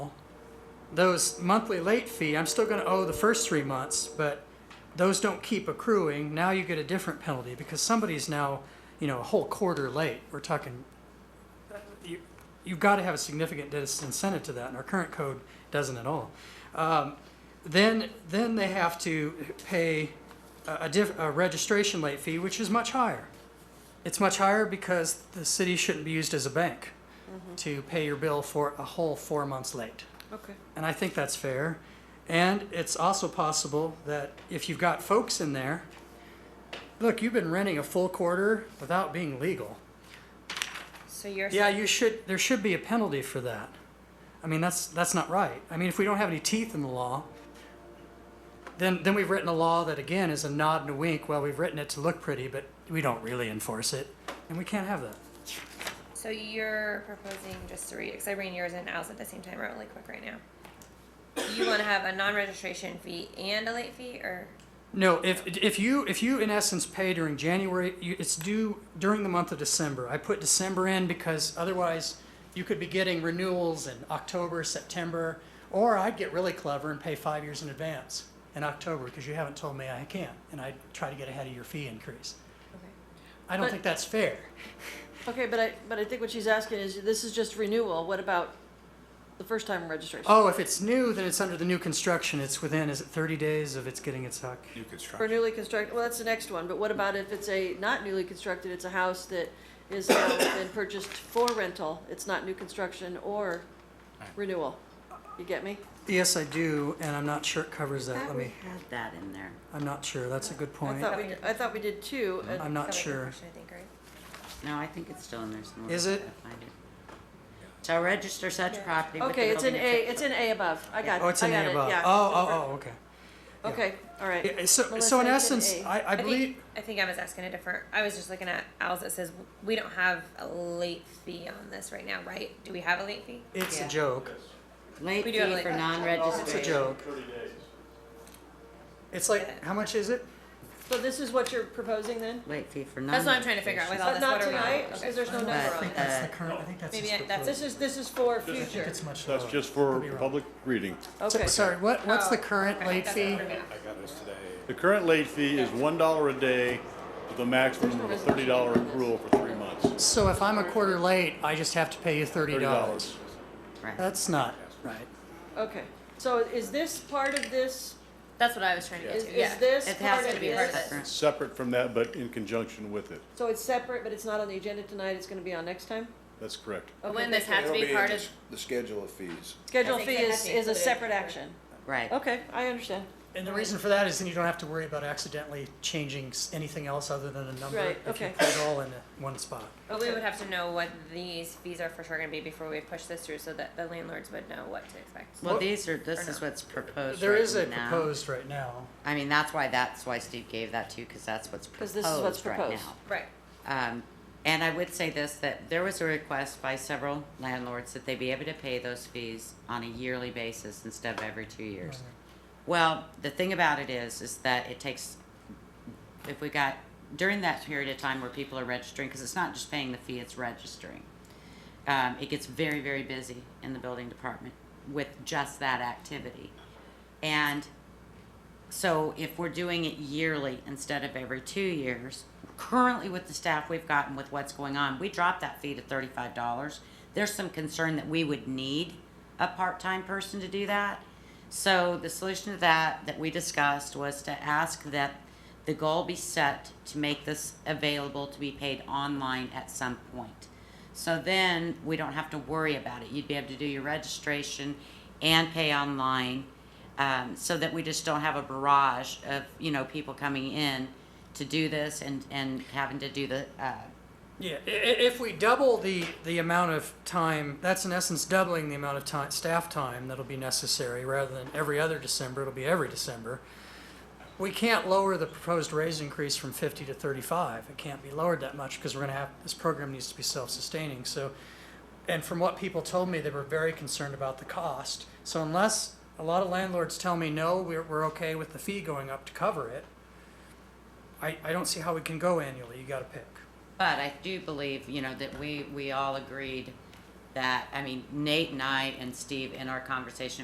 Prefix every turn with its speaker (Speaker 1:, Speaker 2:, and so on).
Speaker 1: those monthly late fee, I'm still gonna owe the first three months, but those don't keep accruing. Now you get a different penalty because somebody's now, you know, a whole quarter late. We're talking, uh, you, you've gotta have a significant disincentive to that and our current code doesn't at all. Um, then, then they have to pay a, a diff, a registration late fee, which is much higher. It's much higher because the city shouldn't be used as a bank to pay your bill for a whole four months late
Speaker 2: Okay.
Speaker 1: and I think that's fair. And it's also possible that if you've got folks in there, look, you've been renting a full quarter without being legal.
Speaker 2: So you're
Speaker 1: Yeah,
Speaker 2: saying-
Speaker 1: you should. There should be a penalty for that. I mean, that's that's not right. I mean, if we don't have any teeth in the law, then then we've written a law that again is a nod and a wink. Well, we've written it to look pretty, but we don't really enforce it, and we can't have that.
Speaker 2: so you're proposing just to read because I read yours and Al's at the same time. Really quick right now. You want to have a non-registration fee and a late fee, or
Speaker 1: No, if, if you, if you in essence pay during January, you, it's due during the month of December. I put December in because otherwise you could be getting renewals in October, September, or I'd get really clever and pay five years in advance in October because you haven't told me I can, and I'd try to get ahead of your fee increase.
Speaker 2: okay,
Speaker 1: I don't
Speaker 3: But-
Speaker 1: think that's fair.
Speaker 3: Okay, but I, but I think what she's asking is, this is just renewal, what about the first time registration?
Speaker 1: Oh, if it's new, then it's under the new construction. It's within, is it thirty days of it's getting its hoc?
Speaker 4: New
Speaker 3: For
Speaker 4: construction.
Speaker 3: newly constructed, well, that's the next one, but what about if it's a, not newly constructed, it's a house that is now been purchased for rental, it's not new construction or renewal? You get me?
Speaker 1: Yes, I do, and I'm not sure it covers that. Let
Speaker 5: Thought we
Speaker 1: me,
Speaker 5: had that in there.
Speaker 1: I'm not sure. That's a good
Speaker 3: I
Speaker 1: point.
Speaker 3: thought we, I thought we did two, and
Speaker 1: I'm not
Speaker 2: That was your
Speaker 1: sure.
Speaker 2: question, I think right.
Speaker 5: No, I think it's still in there somewhere.
Speaker 1: Is it?
Speaker 5: I'll find it. Shall register such
Speaker 2: Yeah.
Speaker 5: property with the
Speaker 3: Okay, it's in A,
Speaker 5: building inspector.
Speaker 3: it's in A above. I got,
Speaker 1: Oh,
Speaker 3: I
Speaker 1: it's in
Speaker 3: got
Speaker 1: A
Speaker 3: it,
Speaker 1: above.
Speaker 3: yeah.
Speaker 1: Oh, oh, oh, okay. yeah.
Speaker 3: Okay,
Speaker 1: Yeah,
Speaker 3: all right.
Speaker 1: So,
Speaker 3: Melissa,
Speaker 1: so in
Speaker 3: it's in
Speaker 1: essence,
Speaker 3: A.
Speaker 1: I, I believe,
Speaker 2: think, I think I was asking a different. I was just looking at Al's that says we don't have a late fee on this right now, right? Do we have a late fee?
Speaker 1: it's a
Speaker 5: Yeah.
Speaker 1: joke.
Speaker 5: Late
Speaker 2: We do have
Speaker 5: fee
Speaker 2: like-
Speaker 5: for
Speaker 1: It's a
Speaker 5: non-registration.
Speaker 1: joke. It's like, how much is it?
Speaker 3: So this is what you're proposing then?
Speaker 5: Late fee for non-registration.
Speaker 2: That's what I'm trying to figure out with all
Speaker 3: But
Speaker 2: this.
Speaker 3: not
Speaker 2: what are we on?
Speaker 3: tonight,
Speaker 2: Okay.
Speaker 3: because there's no
Speaker 5: But,
Speaker 3: number on it.
Speaker 1: That's the
Speaker 5: uh,
Speaker 1: current, I think that's
Speaker 2: Maybe
Speaker 1: just the.
Speaker 2: I- that's-
Speaker 3: This is, this is for
Speaker 1: I think
Speaker 3: future.
Speaker 1: it's much
Speaker 6: That's
Speaker 1: lower.
Speaker 6: just for
Speaker 1: Could be wrong.
Speaker 6: public reading.
Speaker 3: Okay, Oh,
Speaker 1: So- Sorry, what, what's the current
Speaker 2: Okay,
Speaker 1: late
Speaker 2: that's what
Speaker 1: fee?
Speaker 2: we're gonna-
Speaker 4: I got this today. The current late fee is one dollar a day with a maximum of a thirty dollar accrual for three months.
Speaker 1: So if I'm a quarter late, I just have to pay you thirty
Speaker 4: Thirty
Speaker 1: dollars?
Speaker 4: dollars.
Speaker 5: Right.
Speaker 1: That's not right.
Speaker 3: okay. So is this part of this,
Speaker 2: That's what I was trying to get
Speaker 3: is,
Speaker 2: to.
Speaker 3: is
Speaker 2: yeah.
Speaker 3: this
Speaker 5: It
Speaker 3: part
Speaker 5: has
Speaker 3: of
Speaker 5: to be part
Speaker 3: this?
Speaker 5: of it.
Speaker 4: Separate from that, but in conjunction with it.
Speaker 3: So it's separate, but it's not on the agenda tonight, it's gonna be on next time?
Speaker 4: That's correct.
Speaker 2: But when this has to be part of
Speaker 7: The schedule of fees.
Speaker 3: Schedule
Speaker 2: I think
Speaker 3: fee
Speaker 2: it has
Speaker 3: is,
Speaker 2: to be
Speaker 3: is a
Speaker 2: included.
Speaker 3: separate action.
Speaker 5: Right.
Speaker 3: Okay, I understand.
Speaker 1: And the reason for that is then you don't have to worry about accidentally changing s- anything else other than a number.
Speaker 3: Right,
Speaker 1: If you
Speaker 3: okay.
Speaker 1: put it all in one spot.
Speaker 2: But we would have to know what these fees are for sure gonna be before we push this through, so that the landlords would know what to expect.
Speaker 5: Well, these are, this
Speaker 2: Or
Speaker 5: is
Speaker 2: no.
Speaker 5: what's proposed
Speaker 1: There is a
Speaker 5: right now.
Speaker 1: proposed right now.
Speaker 5: I mean, that's why, that's why Steve gave that to you, because that's what's
Speaker 3: 'Cause this is what's
Speaker 5: proposed right
Speaker 3: proposed.
Speaker 5: now.
Speaker 2: Right.
Speaker 5: Um, and I would say this, that there was a request by several landlords that they be able to pay those fees on a yearly basis instead of every two years. Well, the thing about it is, is that it takes, if we got, during that period of time where people are registering, because it's not just paying the fee, it's registering. Um, it gets very, very busy in the building department with just that activity. And so if we're doing it yearly instead of every two years, currently with the staff we've gotten with what's going on, we dropped that fee to thirty-five dollars. There's some concern that we would need a part-time person to do that. So the solution to that, that we discussed, was to ask that the goal be set to make this available to be paid online at some point. So then we don't have to worry about it. You'd be able to do your registration and pay online um, so that we just don't have a barrage of, you know, people coming in to do this and, and having to do the, uh,
Speaker 1: Yeah, i- i- if we double the, the amount of time, that's in essence doubling the amount of time, staff time that'll be necessary, rather than every other December, it'll be every December. We can't lower the proposed raise increase from fifty to thirty-five, it can't be lowered that much, because we're gonna have, this program needs to be self-sustaining, so. And from what people told me, they were very concerned about the cost, so unless a lot of landlords tell me, no, we're, we're okay with the fee going up to cover it, I, I don't see how we can go annually, you gotta pick.
Speaker 5: but I do believe, you know, that we, we all agreed that, I mean, Nate and I and Steve in our conversation